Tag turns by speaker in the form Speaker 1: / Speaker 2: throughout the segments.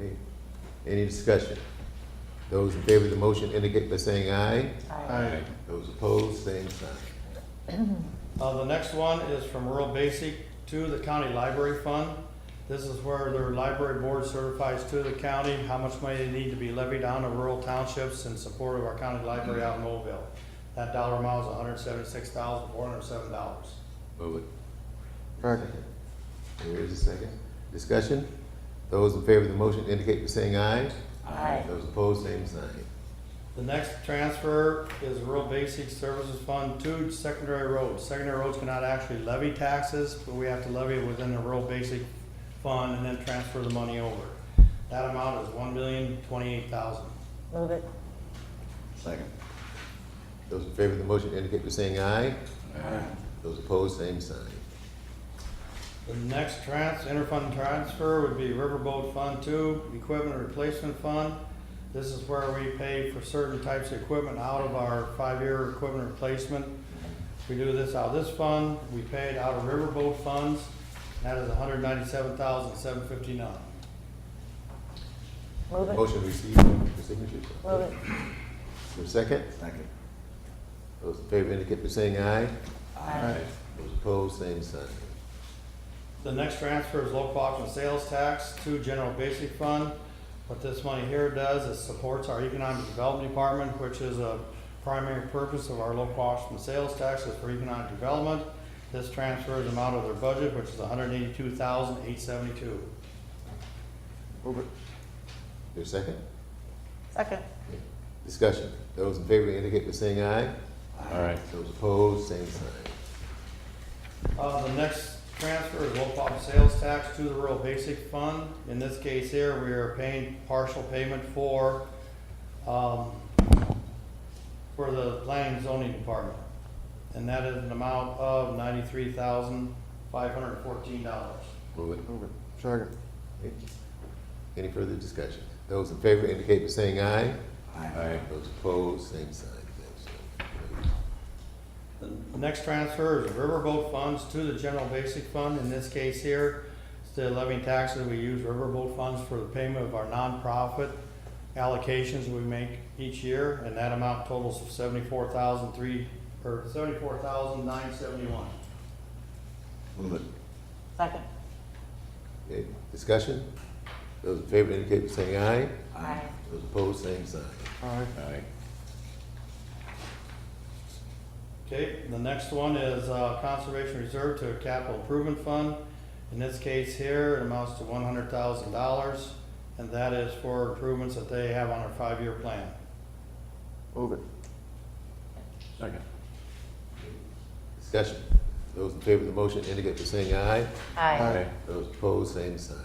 Speaker 1: Any- Any discussion? Those in favor of the motion indicate by saying aye.
Speaker 2: Aye.
Speaker 1: Those opposed, same sign.
Speaker 2: Uh, the next one is from rural basic to the county library fund. This is where their library board certifies to the county how much money they need to be levied on to rural townships in support of our county library out in Mobile. That dollar amount is hundred seventy-six thousand, four hundred seven dollars.
Speaker 1: Move it. Second. There is a second. Discussion? Those in favor of the motion indicate by saying aye.
Speaker 3: Aye.
Speaker 1: Those opposed, same sign.
Speaker 2: The next transfer is rural basic services fund to secondary roads. Secondary roads cannot actually levy taxes, but we have to levy it within the rural basic fund and then transfer the money over. That amount is one million, twenty-eight thousand.
Speaker 3: Move it.
Speaker 4: Second.
Speaker 1: Those in favor of the motion indicate by saying aye. Those opposed, same sign.
Speaker 2: The next trans, interfund transfer would be Riverboat Fund Two, Equipment Replacement Fund. This is where we pay for certain types of equipment out of our five-year equipment replacement. We do this out of this fund, we pay it out of Riverboat funds, and that is 197,759. hundred ninety-seven thousand, seven fifty-nine.
Speaker 3: Move it.
Speaker 1: Motion received for signature.
Speaker 3: Move it.
Speaker 1: For second?
Speaker 4: Second.
Speaker 1: Those in favor indicate by saying aye.
Speaker 3: Aye.
Speaker 1: Those opposed, same sign.
Speaker 2: The next transfer is local option sales tax to general basic fund. What this money here does is supports our economic development department, which is a primary purpose of our local option sales taxes for economic development. This transfers them out of their budget, which is 182,872. hundred and eighty-two thousand, eight seventy-two.
Speaker 1: Move it. Your second?
Speaker 3: Second.
Speaker 1: Discussion. Those in favor indicate by saying aye. Aye. Those opposed, same sign.
Speaker 2: Uh, the next transfer is local option sales tax to the rural basic fund. In this case here, we are paying partial payment for, um, for the planning and zoning department. And that is an amount of ninety-three thousand, five hundred and fourteen dollars.
Speaker 1: Move it. Move it. Second. Any further discussion? Those in favor indicate by saying aye.
Speaker 4: Aye.
Speaker 1: Those opposed, same sign. Thanks.
Speaker 2: The next transfer is riverboat funds to the general basic fund. In this case here, instead of levying taxes, we use riverboat funds for the payment of our nonprofit allocations we make each year, and that amount totals seventy-four thousand three, or seventy-four thousand nine seventy-one.
Speaker 4: Move it.
Speaker 3: Second.
Speaker 1: Okay, discussion? Those in favor indicate by saying aye.
Speaker 3: Aye.
Speaker 1: Those opposed, same sign.
Speaker 4: Aye.
Speaker 2: Okay, the next one is uh, Conservation Reserve to a Capital Improvement Fund. In this case here, it amounts to one hundred thousand dollars, and that is for improvements that they have on our five-year plan.
Speaker 1: Move it.
Speaker 4: Second.
Speaker 1: Discussion? Those in favor of the motion indicate by saying aye.
Speaker 3: Aye.
Speaker 1: Those opposed, same sign.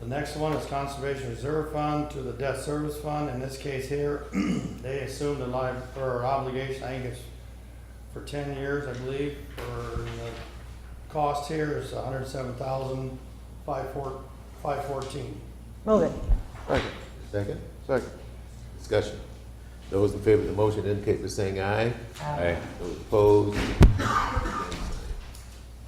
Speaker 2: The next one is Conservation Reserve Fund to the Debt Service Fund. In this case here, they assumed a li, or obligation, I think it's for ten years, I believe, for the cost here is a hundred and seven thousand, five four, five fourteen.
Speaker 3: Move it.
Speaker 1: Second? Second. Discussion? Those in favor of the motion indicate by saying aye.
Speaker 4: Aye.
Speaker 1: Those opposed,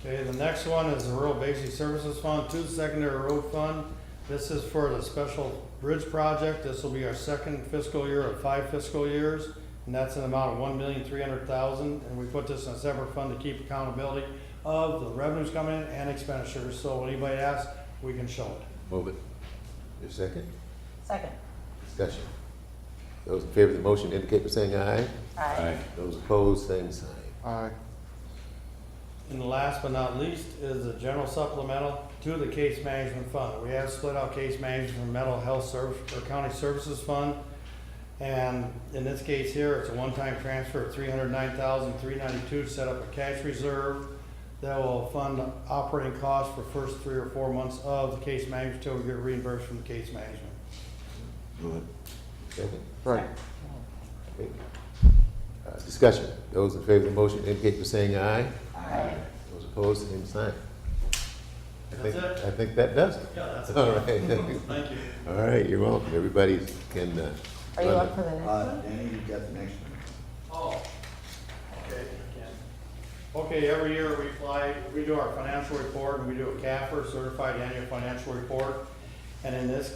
Speaker 2: Okay, the next one is the Rural Basic Services Fund, two secondary road fund. This is for the special bridge project. This will be our second fiscal year of five fiscal years. And that's an amount of one million, three hundred thousand, and we put this in a separate fund to keep accountability of the revenues coming in and expenditures. So when anybody asks, we can show it.
Speaker 4: Move it.
Speaker 1: your second?
Speaker 3: Second.
Speaker 1: Discussion. Those in favor of the motion indicate by saying aye.
Speaker 3: Aye.
Speaker 1: Those opposed, same sign.
Speaker 2: And last but not least is the general supplemental to the case management fund. We have split out case management from mental health service, or county services fund. And in this case here, it's a one-time transfer of three hundred nine thousand, three ninety-two to set up a cash reserve that will fund operating costs for first three or four months of the case management till we get reimbursed from the case management.
Speaker 4: Move it.
Speaker 1: Second.
Speaker 3: Right.
Speaker 1: Okay. Uh, Discussion. Those in favor of the motion indicate by saying aye.
Speaker 4: Aye.
Speaker 1: Those opposed, same sign. I think-
Speaker 2: That's it.
Speaker 1: I think that Uh, does it.
Speaker 2: Yeah, that's
Speaker 1: All right.
Speaker 2: Thank you.
Speaker 1: All right, you're welcome. Everybody can. uh,
Speaker 3: Are you
Speaker 1: run
Speaker 3: up for the next
Speaker 4: Uh,
Speaker 3: one?
Speaker 4: Danny, you got the next one.
Speaker 2: Oh, okay, Okay, every year we fly, we do our financial report, and we do a CAFR, Certified Annual Financial Report. And in this